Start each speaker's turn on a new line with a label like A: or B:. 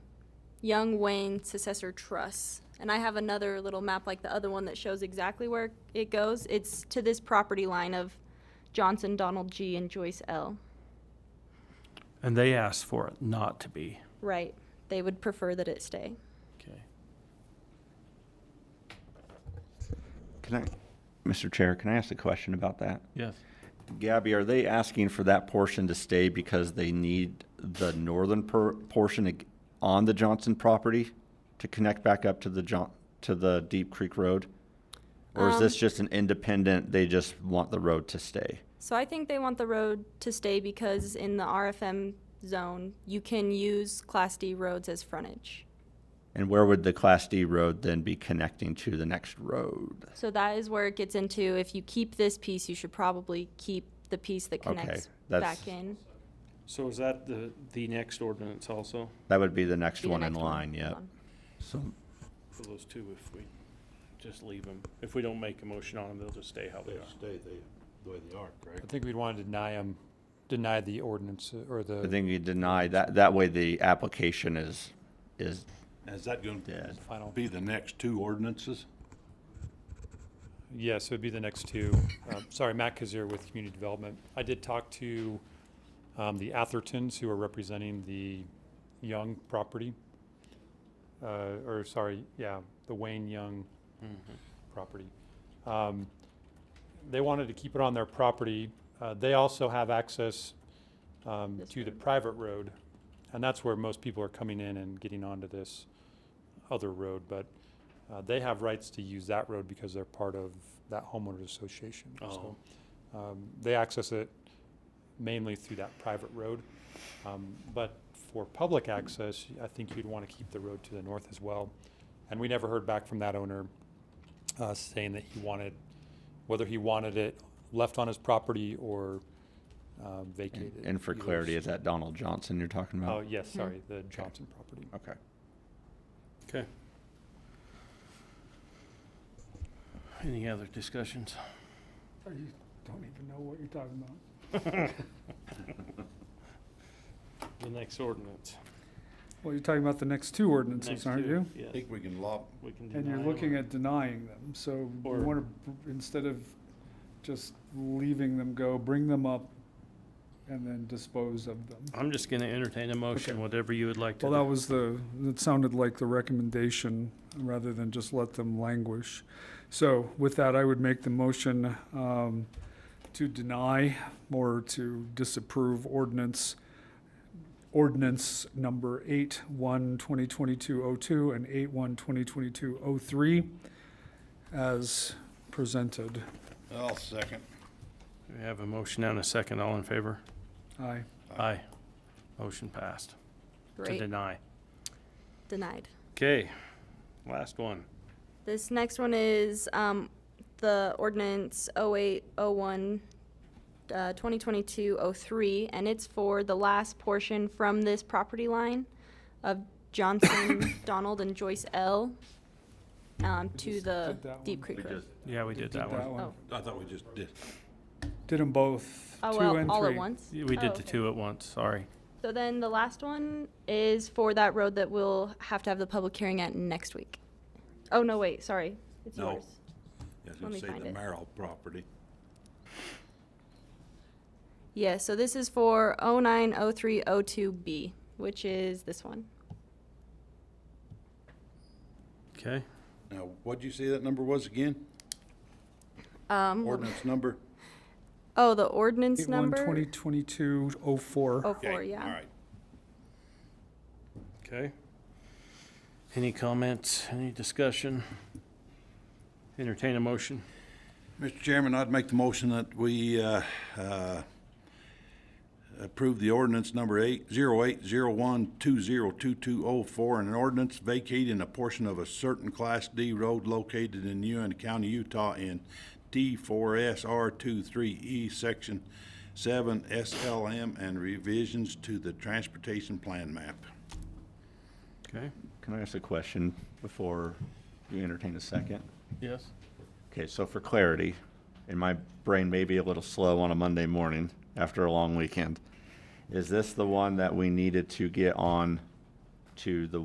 A: Young Wayne Successor Truss. And I have another little map like the other one that shows exactly where it goes. It's to this property line of Johnson, Donald G, and Joyce L.
B: And they asked for it not to be.
A: Right. They would prefer that it stay.
B: Okay.
C: Can I, Mr. Chair, can I ask a question about that?
B: Yes.
C: Gabby, are they asking for that portion to stay because they need the northern per, portion ag- on the Johnson property to connect back up to the John, to the Deep Creek Road? Or is
A: Um,
C: this just an independent, they just want the road to stay?
A: So I think they want the road to stay because in the RFM zone, you can use Class D roads as frontage.
C: And where would the Class D road then be connecting to the next road?
A: So that is where it gets into, if you keep this piece, you should probably keep the piece that
C: Okay,
A: connects
C: that's-
A: back in.
D: So is that the, the next ordinance also,
C: That would be the next
A: Be the
C: one in
A: next one. Um,
C: line, yeah.
A: Hold on.
C: So,
D: for those two, if we just leave them? If we don't make a motion on them, they'll just stay how they
E: They
D: are.
E: stay the, the way they are,
F: I
E: correct?
F: think we'd want to deny them, deny the ordinance uh, or
C: I
F: the
C: think you deny that, that way the application is, is
E: Is that gonna
C: dead.
F: final.
E: be the next two ordinances?
F: Yes, it would be the next two. Um, Sorry, Matt Kazir with Community Development. I did talk to um, the Athertons, who are representing the Young property. uh, Or, sorry, yeah, the Wayne Young property. Um, They wanted to keep it on their property. Uh, They also have access um,
A: This
F: to the private road, and that's where most people are coming in and getting onto this other road. But uh, they have rights to use that road because they're part of that homeowners association. So, um, They access it mainly through that private road. Um, But for public access, I think you'd want to keep the road to the north as well. And we never heard back from that owner uh, saying that he wanted, whether he wanted it left on his property or um, vacated.
C: And for
F: Either
C: clarity,
F: s-
C: is that Donald Johnson you're talking
F: Oh,
C: about?
F: yes, sorry, the Johnson property.
C: Okay.
D: Okay.
B: Any other discussions?
G: Oh, You don't even know what you're talking about.
D: The next ordinance.
G: Well, you're talking about the next two ordinances,
D: Next
G: aren't
D: two,
G: you?
E: I
D: Yes.
E: think we can lob,
D: We can
G: And you're
D: deny
G: looking
D: or-
G: at denying them, so you
D: Or-
G: want to, instead of just leaving them go, bring them up and then dispose of them.
B: I'm just going to entertain a motion,
G: Okay.
B: whatever you would like to
G: Well, that
B: do.
G: was the, that sounded like the recommendation, rather than just let them languish. So with that, I would make the motion um, to deny or to disapprove ordinance, ordinance number eight, one, 2022-02, and eight, one, 2022-03, as presented.
E: I'll second.
B: We have a motion and a second. All in favor?
G: Aye.
B: Aye. Motion passed to
A: Great,
B: deny.
A: denied.
B: Okay, last one.
A: This next one is um, the ordinance 0801, uh, 2022-03, and it's for the last portion from this property line of Johnson, Donald, and Joyce L. um, to
G: just
A: the
G: did that
A: Deep
G: one.
A: Creek Road.
B: Yeah, we did that one.
A: Oh,
E: I thought we just did.
G: Did them both,
A: oh,
G: two and three.
A: well, all at once?
B: Yeah, We
A: Oh,
B: did the
A: okay.
B: two at once, sorry.
A: So then the last one is for that road that we'll have to have the public hearing at next week. Oh, no, wait, sorry. It's
E: No.
A: yours.
E: Yes,
A: Let me
E: it say
A: find
E: the
A: it.
E: Merrill property.
A: Yeah, so this is for 090302B, which is this one.
B: Okay,
E: Now, what'd you say that number was again?
A: Um,
E: Ordinance number?
A: oh, the ordinance
G: Eight-one,
A: number?
G: 2022-04.
A: Oh,
E: Okay,
A: four, yeah.
E: All right.
B: okay. Any comments, any discussion? Entertain a motion.
E: Mr. Chairman, I'd make the motion that we uh, uh, approve the ordinance number eight zero eight zero one two zero two two oh four, an ordinance vacating a portion of a certain Class D road located in Uena County, Utah in D four S R 23 E, Section seven SLM, and revisions to the transportation plan map.
B: Okay,
C: Can I ask a question before you entertain a second?
B: yes.
C: Okay, so for clarity, and my brain may be a little slow on a Monday morning after a long weekend, is this the one that we needed to get on to the